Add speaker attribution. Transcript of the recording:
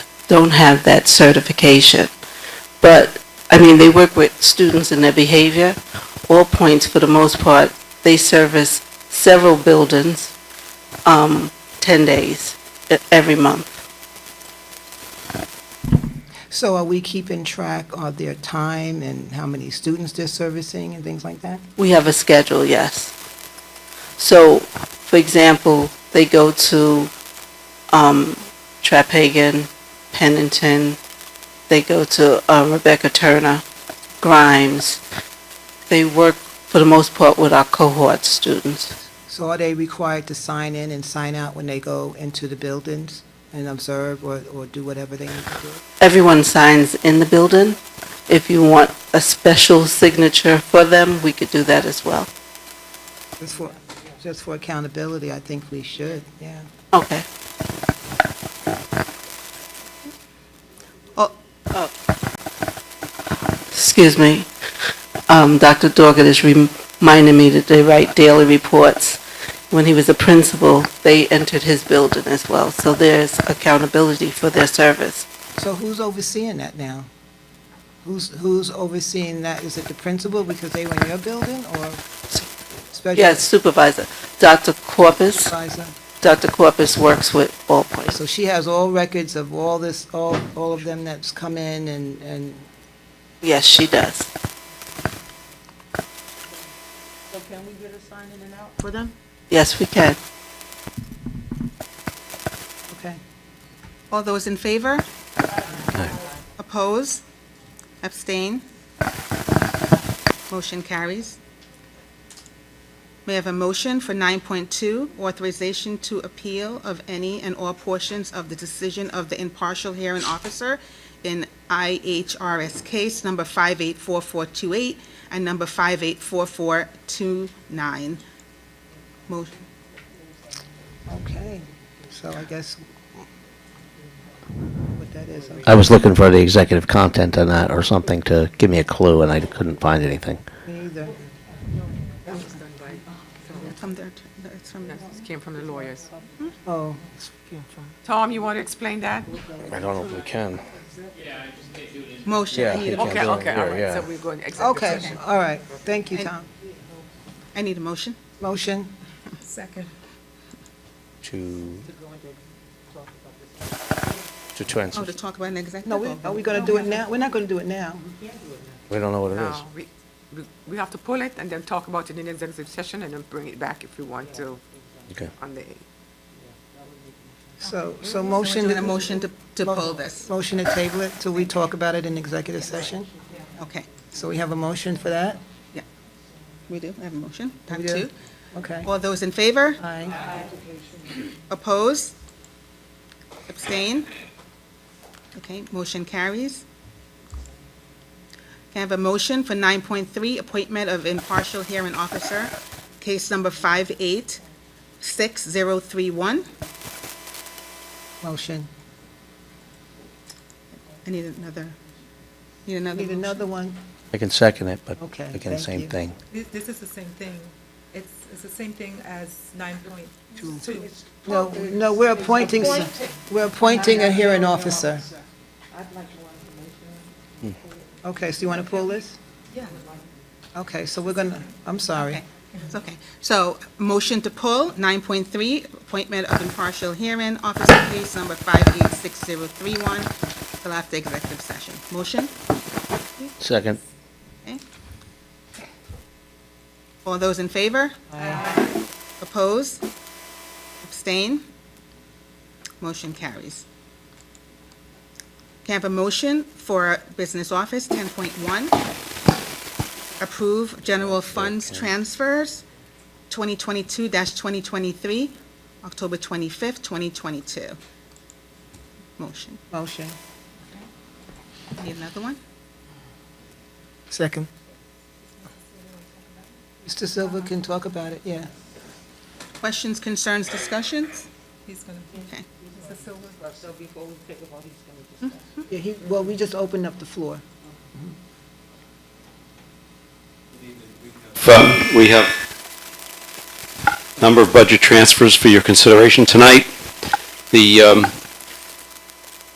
Speaker 1: don't have that certification. But, I mean, they work with students and their behavior. All points, for the most part, they service several buildings, um, 10 days, e- every month.
Speaker 2: So are we keeping track of their time and how many students they're servicing and things like that?
Speaker 1: We have a schedule, yes. So, for example, they go to um, Trapegan, Pennington, they go to uh, Rebecca Turner, Grimes. They work, for the most part, with our cohort students.
Speaker 2: So are they required to sign in and sign out when they go into the buildings and observe or, or do whatever they need to do?
Speaker 1: Everyone signs in the building. If you want a special signature for them, we could do that as well.
Speaker 2: Just for, just for accountability, I think we should, yeah.
Speaker 1: Okay.
Speaker 2: Oh.
Speaker 1: Oh. Excuse me. Um, Dr. Doggett is reminding me that they write daily reports. When he was a principal, they entered his building as well, so there's accountability for their service.
Speaker 2: So who's overseeing that now? Who's, who's overseeing that? Is it the principal because they were in your building or special
Speaker 1: Yes, supervisor. Dr. Corpus,
Speaker 2: advisor?
Speaker 1: Dr. Corpus works with all points.
Speaker 2: So she has all records of all this, all, all of them that's come in and, and
Speaker 1: Yes, she does.
Speaker 3: So can we get a sign in and out for them?
Speaker 1: Yes, we can.
Speaker 2: Okay.
Speaker 3: All those in favor? Oppose? Abstain? Motion carries. May I have a motion for 9.2, authorization to appeal of any and all portions of the decision of the impartial hearing officer in IHRS case number 584428 and number 584429. Motion.
Speaker 2: Okay, so I guess what that is, okay.
Speaker 4: I was looking for the executive content on that or something to give me a clue, and I couldn't find anything.
Speaker 2: me either.
Speaker 3: From their, it's from their.
Speaker 5: This came from the lawyers.
Speaker 2: Oh,
Speaker 5: Tom, you want to explain that?
Speaker 4: I don't know if we can.
Speaker 3: Motion. I need a,
Speaker 5: Okay,
Speaker 4: do it
Speaker 5: okay, all
Speaker 4: here,
Speaker 5: right,
Speaker 4: yeah.
Speaker 5: so we're going to executive
Speaker 2: okay,
Speaker 5: session.
Speaker 2: all right, thank you, Tom.
Speaker 3: I need a motion.
Speaker 2: Motion,
Speaker 5: Second.
Speaker 4: To. To
Speaker 3: Oh,
Speaker 4: transfer.
Speaker 3: to talk about an executive?
Speaker 2: no, we, are we gonna do it now? We're not gonna do it now.
Speaker 4: We don't know what it is.
Speaker 2: Oh.
Speaker 5: No, we, we- we have to pull it and then talk about it in executive session and then bring it back if we want to
Speaker 4: Okay.
Speaker 5: on the,
Speaker 2: So, so
Speaker 3: Motion,
Speaker 2: motion,
Speaker 3: a motion to, to pull this.
Speaker 2: motion to table it till we talk about it in executive session?
Speaker 3: Okay,
Speaker 2: So we have a motion for that?
Speaker 3: we do, I have a motion. Time
Speaker 2: We do?
Speaker 3: two.
Speaker 2: Okay.
Speaker 3: All those in favor?
Speaker 2: Aye.
Speaker 3: Oppose? Abstain? Okay, motion carries. Can I have a motion for 9.3, appointment of impartial hearing officer, case number 586031?
Speaker 2: Motion.
Speaker 3: I need another, need another
Speaker 2: Need
Speaker 3: motion.
Speaker 2: another one?
Speaker 4: I can second it, but
Speaker 2: Okay,
Speaker 4: again,
Speaker 2: thank you.
Speaker 4: same thing.
Speaker 6: This, this is the same thing. It's, it's the same thing as nine point two.
Speaker 2: No, no, we're appointing, s- we're appointing a hearing officer. Okay, so you want to pull this? Yeah. Okay, so we're gonna, I'm sorry.
Speaker 3: Okay. It's okay. So, motion to pull, 9.3, appointment of impartial hearing officer, case number 586031, till after executive session. Motion?
Speaker 4: Second.
Speaker 3: All those in favor? Oppose? Abstain? Motion carries. Can I have a motion for Business Office 10.1? Approve general funds transfers, 2022-2023, October 25th, 2022. Motion.
Speaker 2: Motion.
Speaker 3: Need another one?
Speaker 2: Second. Mr. Silva can talk about it, yeah.
Speaker 3: Questions, concerns, discussions?
Speaker 6: He's gonna,
Speaker 3: Okay.
Speaker 6: is this Silva?
Speaker 2: Yeah, he, well, we just opened up the floor.
Speaker 7: Uh, We have a number of budget transfers for your consideration tonight. The um,